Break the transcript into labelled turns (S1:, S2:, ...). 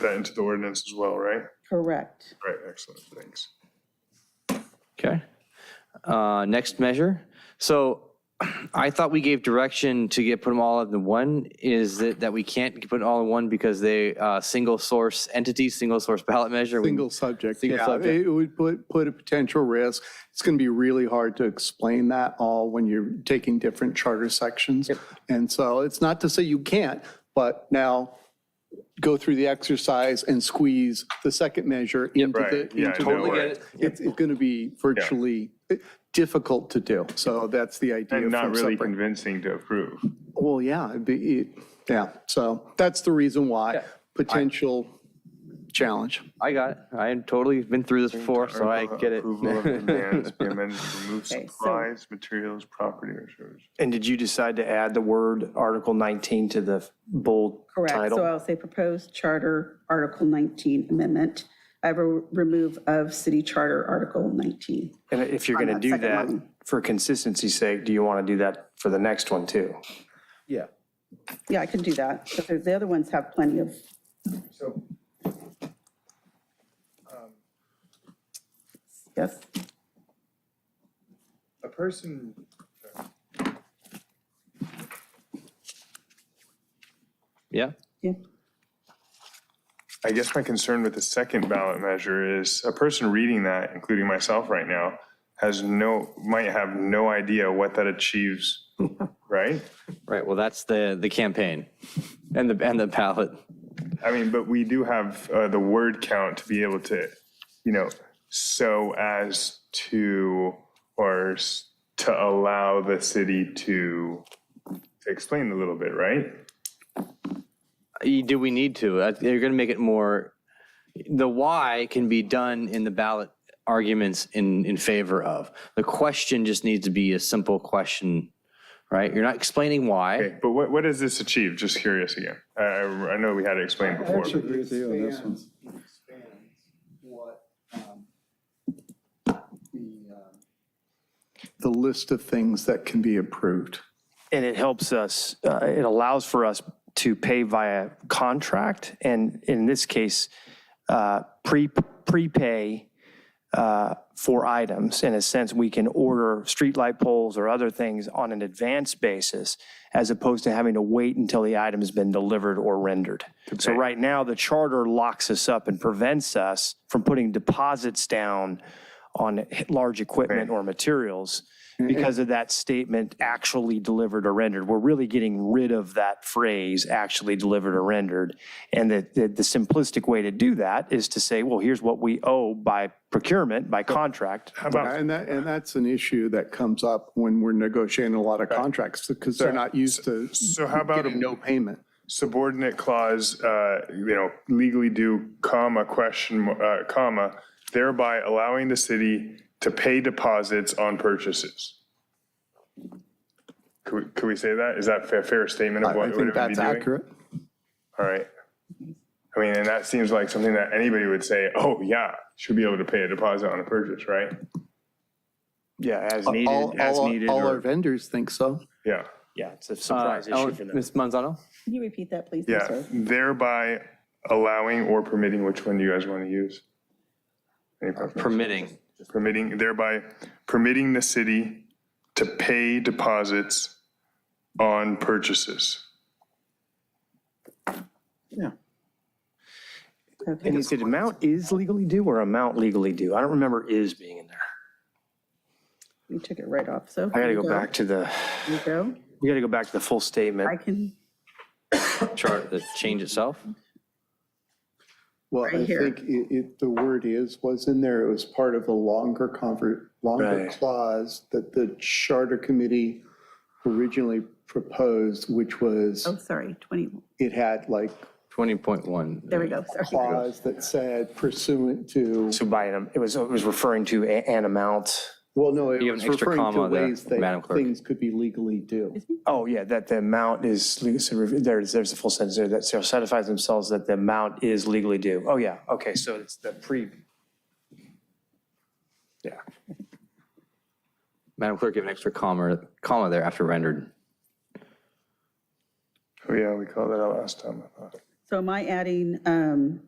S1: that into the ordinance as well, right?
S2: Correct.
S1: Right, excellent, thanks.
S3: Okay. Uh, Next measure. So I thought we gave direction to get, put them all in one, is that, that we can't put it all in one because they, uh, single source entity, single source ballot measure. We-
S1: Mm-hmm.
S4: Single subject,
S3: Single
S4: yeah.
S3: subject.
S4: It would put, put a potential risk. It's going to be really hard to explain that all when you're taking different charter sections. And so it's not to say you can't, but now go through the exercise and squeeze the second measure into
S1: Right,
S4: the.
S1: yeah, I
S4: into the-
S1: know, right.
S4: It's, it's going to be virtually eh, difficult to do. So that's the idea.
S1: And not
S4: for
S1: really
S4: separate-
S1: convincing to approve.
S4: Well, yeah, it'd be, it- yeah. So that's the reason why, potential challenge.
S3: I got it. I had totally been through this before, so I get it.
S1: Approval of demands be amended to remove
S2: Okay, so-
S1: supplies, materials, property, or services.
S5: And did you decide to add the word Article 19 to the bold
S2: Correct. So
S5: title?
S2: I'll say proposed charter Article 19 amendment. I will remove of city charter Article 19.
S5: And if you're going to
S2: that
S5: do
S2: second
S5: that,
S2: one.
S5: for consistency's sake, do you want to do that for the next one too?
S4: Yeah.
S2: Yeah, I can do that. Because the other ones have plenty of,
S6: So
S2: yes.
S6: a person.
S3: Yeah.
S2: Yeah.
S1: I guess my concern with the second ballot measure is a person reading that, including myself right now, has no, might have no idea what that achieves, right?
S3: Right. Well, that's the, the campaign and the, and the ballot.
S1: I mean, but we do have uh, the word count to be able to, you know, so as to, or s- to allow the city to explain a little bit, right?
S3: Y- Do we need to? Uh, You're going to make it more, the why can be done in the ballot arguments in, in favor of. The question just needs to be a simple question, right? You're not explaining why.
S1: Okay, But what, what does this achieve? Just curious again. I, I I know we had it explained before. but-
S6: agree with you on this one.
S4: expands what um, the, um, the list of things that can be approved.
S5: And it helps us, uh, it allows for us to pay via contract and in this case, uh, pre, prepay uh, for items. In a sense, we can order streetlight poles or other things on an advanced basis as opposed to having to wait until the item's been delivered or rendered. So right now, the charter locks us up and prevents us from putting deposits down on large equipment or materials because of that statement, actually delivered or rendered. We're really getting rid of that phrase, actually delivered or rendered. And the, the the simplistic way to do that is to say, well, here's what we owe by procurement, by contract.
S4: And that, and that's an issue that comes up when we're negotiating a lot of contracts because they're not used to
S1: So how about
S4: getting no payment.
S1: subordinate clause, uh, you know, legally due, comma, question, uh, comma, thereby allowing the city to pay deposits on purchases. Could, we- could we say that? Is that a fair- fair statement of
S4: I
S1: what
S4: I
S1: it would
S4: think
S1: be doing?
S4: that's accurate.
S1: All right. I mean, and that seems like something that anybody would say, oh, yeah, should be able to pay a deposit on a purchase, right?
S5: Yeah, as
S4: All,
S5: needed, as
S4: all-
S5: needed.
S4: all
S5: or-
S4: our vendors think so.
S1: Yeah,
S5: Yeah, it's a
S3: Uh,
S5: surprise issue
S3: Ellen-
S5: for them.
S3: Ms. Manzano?
S2: Can you repeat that, please? I'm
S1: yeah.
S2: sorry.
S1: Thereby allowing or permitting, which one do you guys want to use? Any preference?
S3: Permitting.
S1: permitting, thereby permitting the city to pay deposits on purchases.
S5: And is it amount is legally due or amount legally due? I don't remember is being in there.
S2: We took it right off, so.
S5: I gotta go back to the,
S2: You go.
S5: we gotta go back to the full
S2: I
S5: statement.
S2: can,
S3: Chart, the change itself?
S4: Well, I
S2: Right here.
S4: think it, it, the word is, was in there, it was part of a longer convert, longer
S5: Right.
S4: clause that the charter committee originally proposed, which was,
S2: oh, sorry, 20,
S4: it had like
S3: 20.1.
S2: there we go, sorry.
S4: clause that said pursuant to,
S5: So by, an- it was, it was referring to a- an amount.
S4: well, no, it
S3: You have
S4: was
S3: an extra
S4: referring to
S3: comma there,
S4: ways that
S3: Madam Clerk.
S4: things could be legally due.
S5: Oh, yeah, that the amount is, le- so rev- there's, there's a full sentence there that so satisfies themselves that the amount is legally due. Oh, yeah, okay, so it's the pre. Yeah,
S3: Madam Clerk, give an extra comma, comma there after rendered.
S1: Oh, yeah, we called that out last time, I thought.
S2: So am I adding um,